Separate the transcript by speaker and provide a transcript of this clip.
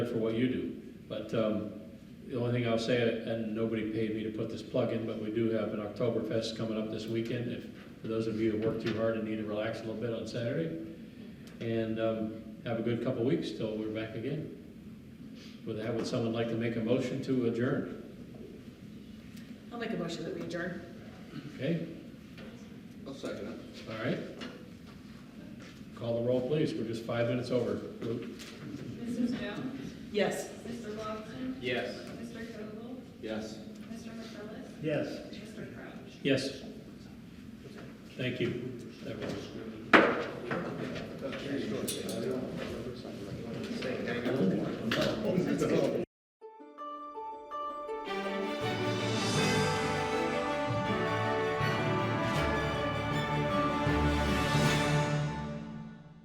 Speaker 1: for what you do. But um, the only thing I'll say, and nobody paid me to put this plug in, but we do have an Oktoberfest coming up this weekend. If, for those of you who work too hard and need to relax a little bit on Saturday. And um, have a good couple weeks till we're back again. With that, would someone like to make a motion to adjourn?
Speaker 2: I'll make a motion that we adjourn.
Speaker 1: Okay,
Speaker 3: I'll second it.
Speaker 1: all right. Call the roll, please. We're just five minutes over. Luke?
Speaker 4: Mrs. Jones?
Speaker 2: Yes.
Speaker 4: Mr. Lawson?
Speaker 3: Yes.
Speaker 4: Mr. Koval?
Speaker 3: Yes.
Speaker 4: Mr. McCrillis?
Speaker 1: Yes.
Speaker 4: Mr. Crouch?
Speaker 1: Yes. Thank you. That was-
Speaker 3: That's very short.